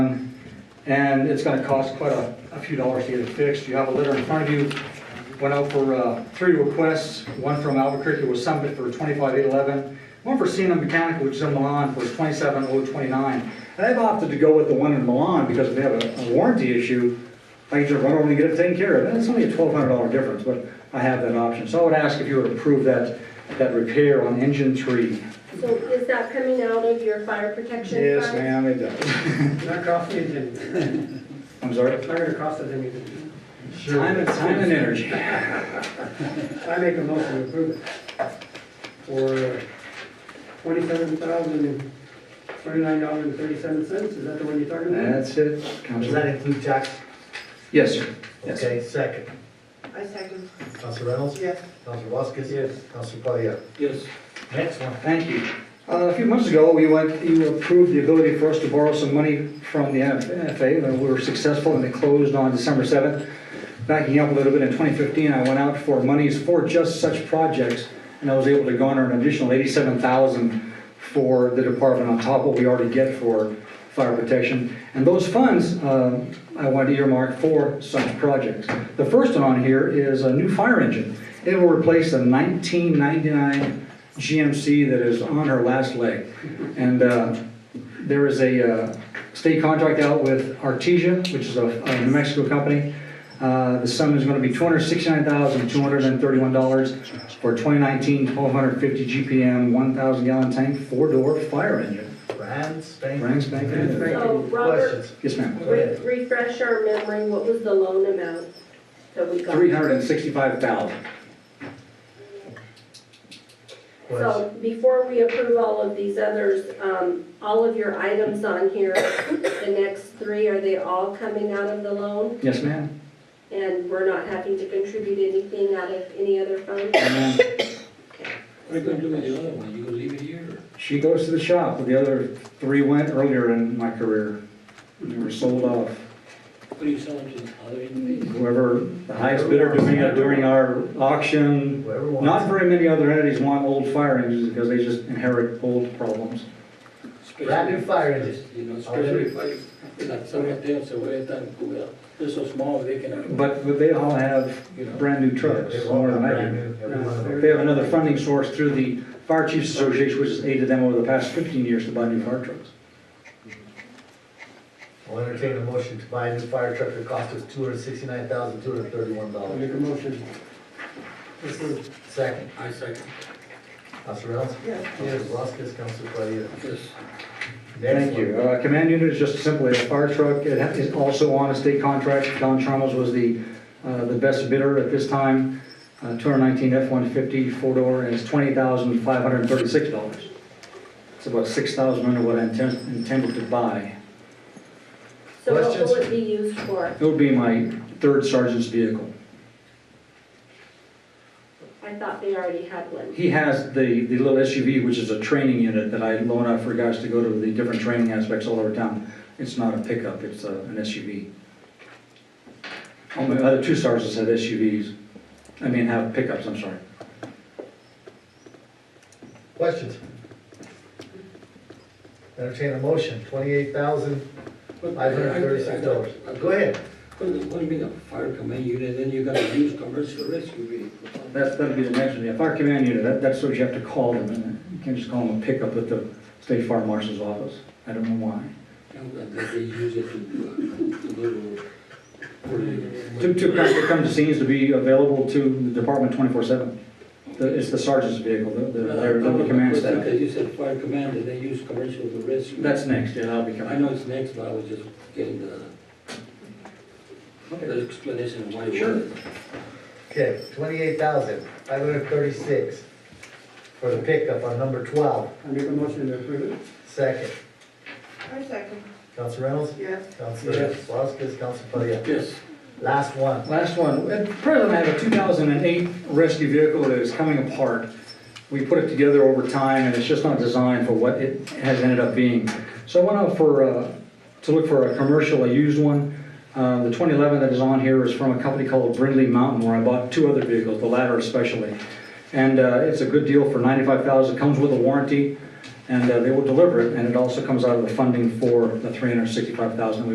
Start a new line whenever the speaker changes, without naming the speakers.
and it's gonna cost quite a, a few dollars to get it fixed. You have a letter in front of you, went out for, uh, three requests, one from Albuquerque was Summit for twenty-five eight eleven, one for Cena Mechanical, which is in Milan, for twenty-seven oh twenty-nine. And I've opted to go with the one in Milan, because if they have a a warranty issue, I can just run over and get it taken care of, and it's only a twelve hundred dollar difference, but I have that option. So I would ask if you would approve that, that repair on engine three.
So is that coming out of your fire protection fund?
Yes, ma'am, it does.
Not cost anything, it's
I'm sorry?
not gonna cost us anything.
Time and, time and energy.
I make a motion to approve it for twenty-seven thousand, twenty-nine dollars and thirty-seven cents, is that the one you're talking about?
That's it,
Does that
Counselor.
include tax?
Yes, sir. Yes.
Okay, second.
I second.
Council Reynolds?
Yes.
Council Voskis?
Yes.
Council Palia?
Yes.
Next one.
Thank you. Uh, A few months ago, we went, you approved the ability for us to borrow some money from the NFA, and we were successful, and it closed on December 7th. Backing up a little bit, in 2015, I went out for monies for just such projects, and I was able to garner an additional 87,000 for the department on top of what we already get for fire protection. And those funds, uh, I wanted earmarked for such projects. The first one on here is a new fire engine. It will replace a 1999 GMC that is on her last leg. And uh, there is a uh, state contract out with Artesia, which is a a New Mexico company. Uh, The sum is going to be $269,231 for a 2019 1250 GPM, 1,000 gallon tank, four-door fire engine.
Brand spanking.
Brand spanking.
new.
Thank
So
you.
Robert,
Questions?
Yes, ma'am.
re- refresh our memory, what was the loan amount that we got?
365000
Questions?
So before we approve all of these others, um, all of your items on here, the next three, are they all coming out of the loan?
Yes, ma'am.
And we're not having to contribute anything out of any other fund?
And then
What are you gonna do with the other one? You gonna leave it here? or-
She goes to the shop, but the other three went earlier in my career. They were sold off.
What are you selling to the other individuals?
whoever the highest bidder during, during our auction.
Whoever
Not
wants.
very many other entities want old fire engines because they just inherit old problems.
Brand new fire engine.
You know, especially if I, like someone else, so every time, well, they're so small, they can,
But, but they all have
you know.
brand new trucks,
They
more
want
than I
brand
do.
new, every one of them.
They have another funding source through the Fire Chiefs Association, which has aided them over the past fifteen years to buy new fire trucks.
I'll entertain a motion to buy a new fire truck that cost us two hundred sixty-nine thousand, two hundred thirty-one
I
dollars.
make a motion. Approve.
Second.
I second.
Council Reynolds?
Yes.
Council Voskis? Council Palia?
Yes.
Next
Thank you.
one.
Uh, Command unit is just simply a fire truck. It ha- is also on a state contract. Don Chalmers was the, uh, the best bidder at this time. Uh, 219 F-150 four-door, and it's $20,536. It's about 6,000 under what I intend- intended to buy.
So what
Questions?
will it be used for?
It would be my third sergeant's vehicle.
I thought they already had one.
He has the, the little SUV, which is a training unit that I loan out for guys to go to the different training aspects all over town. It's not a pickup, it's a- an SUV. Only the other two sergeants have SUVs, I mean, have pickups, I'm sorry.
Questions? Entertain a motion, twenty-eight thousand, five hundred thirty-six dollars. Go ahead.
What do you mean, a fire command unit, then you gotta use commercial rescue vehicle?
That's, that'd be the next one, yeah, fire command unit, that, that's what you have to call them, and you can't just call them a pickup at the state fire marshal's office. I don't know why.
And that they use it to, uh, to go to. for the-
To, to come, to come to scenes to be available to the department twenty-four seven. It's the sergeant's vehicle, the, the, their- the command staff.
Because you said fire command, and they use commercial to rescue.
That's next, yeah, that'll be
I
coming.
know it's next, but I was just getting the, the explanation of why. it
Sure.
was.
Okay, twenty-eight thousand, five hundred thirty-six for the pickup on number twelve,
I make a motion to approve it.
second.
I second.
Council Reynolds?
Yes.
Council
Yes.
Voskis, Council Palia?
Yes.
Last one.
Last one, at present, I have a 2008 rescue vehicle that is coming apart. We put it together over time, and it's just not designed for what it has ended up being. So I went out for, uh, to look for a commercial, a used one. Uh, The 2011 that is on here is from a company called Brindley Mountain, where I bought two other vehicles, the latter especially. And uh, it's a good deal for 95,000, dollars comes with a warranty. and uh, they will deliver it, and it also comes out of the funding for the 365,000 that we